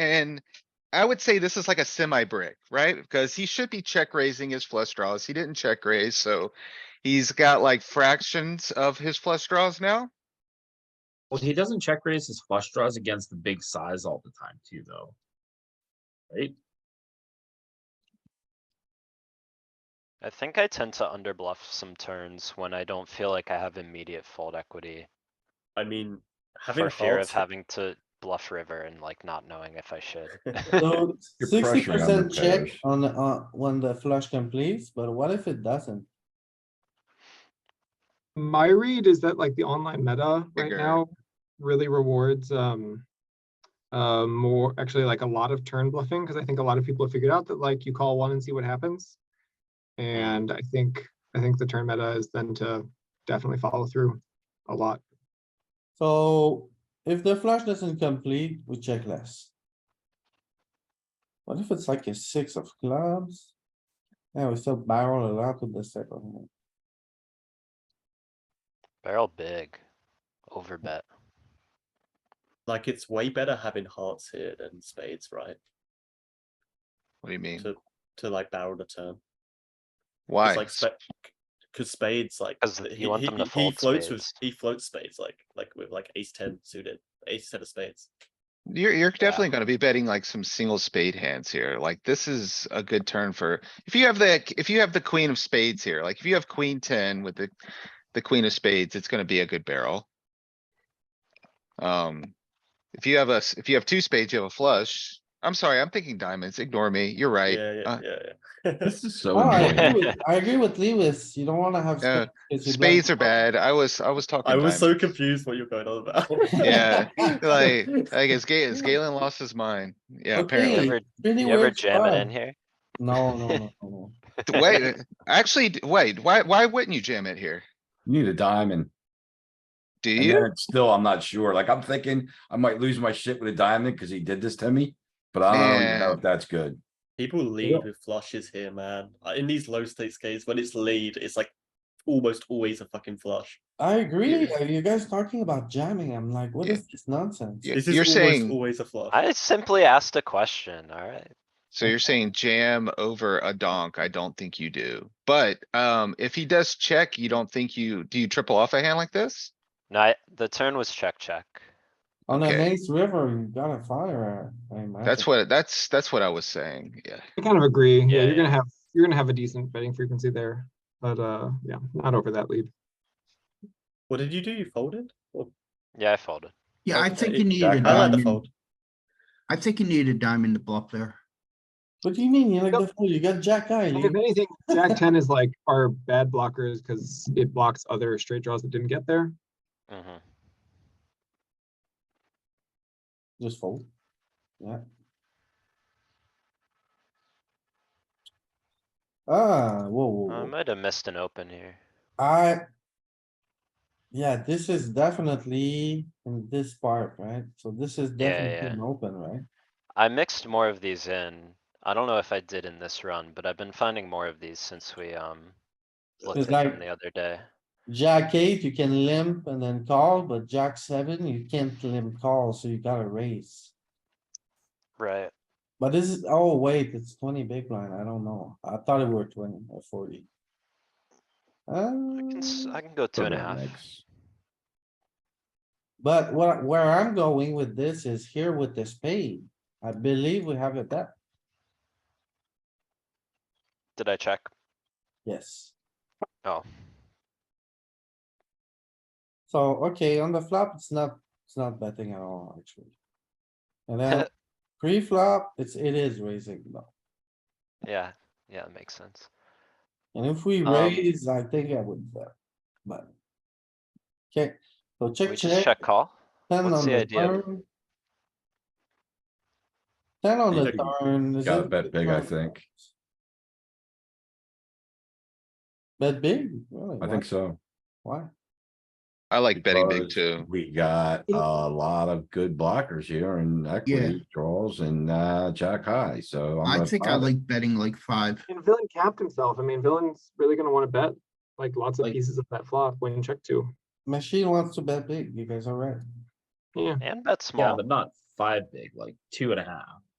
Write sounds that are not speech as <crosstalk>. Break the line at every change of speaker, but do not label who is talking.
And I would say this is like a semi brick, right? Because he should be check raising his flush draws. He didn't check raise, so he's got like fractions of his flush draws now.
Well, he doesn't check raise his flush draws against the big size all the time too, though. Right?
I think I tend to underbluff some turns when I don't feel like I have immediate fold equity
I mean, having
for fear of
hearts,
having to bluff river and like not knowing if I
<laughs>
should. <laughs>
<laughs>
So
You're
sixty
pressuring on
percent
the
check
pairs.
on, the- uh, when the flush completes, but what if it doesn't?
My read is that like the online meta right
Bigger.
now really rewards um uh more actually like a lot of turn bluffing because I think a lot of people have figured out that like you call one and see what happens. And I think I think the turn meta is then to definitely follow through a lot.
So if the flush doesn't complete, we check less. What if it's like a six of clubs? Yeah, we still barrel a lot with the second one.
Barrel big, overbet.
like it's way better having hearts here than spades, right?
What do you mean?
To to like barrel the turn.
Why?
It's like because spades like
'Cause
th-
you
he,
want
he,
them to
he
fold
floats with
spades.
he floats spades like like with like ace ten suited ace ten of spades.
You're, you're definitely gonna be betting like some single spade hands here. Like this is a good turn for, if you have the, if you have the queen of spades here, like if you have queen ten with the, the queen of spades, it's gonna be a good barrel. Um, if you have a, s- if you have two spades, you have a flush. I'm sorry, I'm thinking diamonds. Ignore me. You're right.
Yeah, yeah,
Uh,
yeah, yeah.
This is so
Oh, I
annoying.
agree with- I agree with Lewis, you don't wanna have.
Yeah,
spades 'cause you bluff
Spades are
the flop.
bad. I was, I was talking
<laughs> I
diamonds.
was so confused what you're going on about.
Yeah, Like, I guess Galen, Galen lost his mind.
<laughs>
Yeah,
Okay,
apparently.
Ever-
pretty
You ever
weird
jam it
spot.
in here?
No, no, no, no, no.
Wait, actually, d- wait, why, why wouldn't you jam it here?
You Need a diamond.
Do
And
you?
then it's still, I'm not sure. Like, I'm thinking I might lose my shit with a diamond because he did this to me, but I don't even know
Man.
if that's good.
<laughs> People lead with flushes here, man. Uh, In these low stakes games, when it's lead, it's like almost always a fucking flush.
I
<laughs>
agree, Are you guys talking about jamming, I'm like, what
Yeah.
is this nonsense?
You-
This is
You're
almost
saying,
always a flush.
I simply asked a question, alright?
so you're saying jam over a donk. I don't think you do. But, um, if he does check, you don't think you, do you triple off a hand like this?
No, I- the turn was check, check.
On an
Okay.
ace river, you gotta fire, I imagine.
That's what, that's, that's what I was saying. Yeah.
I kind of agree. Yeah,
Yeah,
you're
yeah.
gonna have you're gonna have a decent betting frequency there. But uh yeah, not over that lead.
What did you do? You folded? Or-
Yeah, I folded.
Yeah, I
Okay,
think you need
I
a
like the
diamond.
fold.
I think you need a diamond to bluff there.
What do you mean, you like
Nope.
the fool, you got jack eye,
Like, If
Lee.
anything, Jack ten is like our bad blockers because it blocks other straight draws that didn't get there.
Mhm.
just fold. Yeah. Ah, whoa, whoa,
I
whoa.
might have missed an open here.
I. Yeah, this is definitely in this part, right? So this is
Yeah,
definitely
yeah.
an open, right?
I mixed more of these in. I don't know if I did in this run, but I've been finding more of these since we, um, looked
It's
at them
like-
the other day.
Jack eight, you can limp and then call, but jack seven, you can't limp call, so you gotta raise.
Right.
But this is, oh wait, it's twenty big blind, I don't know. I thought it were twenty or forty.
I can, s-
Um,
I can go two and a half.
Rednecks.
But what, where I'm going with this is here with the spade. I believe we have a bet,
Did I check?
yes.
Oh,
So, okay, on the flop, it's not, it's not betting at all, actually. And
<laughs>
then pre-flop, it's, it is raising though.
yeah, yeah, that makes sense.
And if we
Um,
raise, I think I would bet, but. Okay, so
We
check,
just
check.
check call?
10
What's
on
the
the
idea?
turn. Ten on
You
the
think-
turn. is
Gotta
it-
bet big, I think.
Bet big, really?
I
why-
think so.
Why?
I like betting big
because
too.
We got a lot of good blockers here and equity draws and, uh, jack high, so. I'm
I
gonna
think I
find it.
like betting like five.
And villain capped himself. I mean, villain's really gonna want to bet like lots of
Like-
pieces of that flop when check two.
Machine wants to bet big, you guys are right.
Yeah.
And bet
Yeah,
small.
but not five big, like two and a half.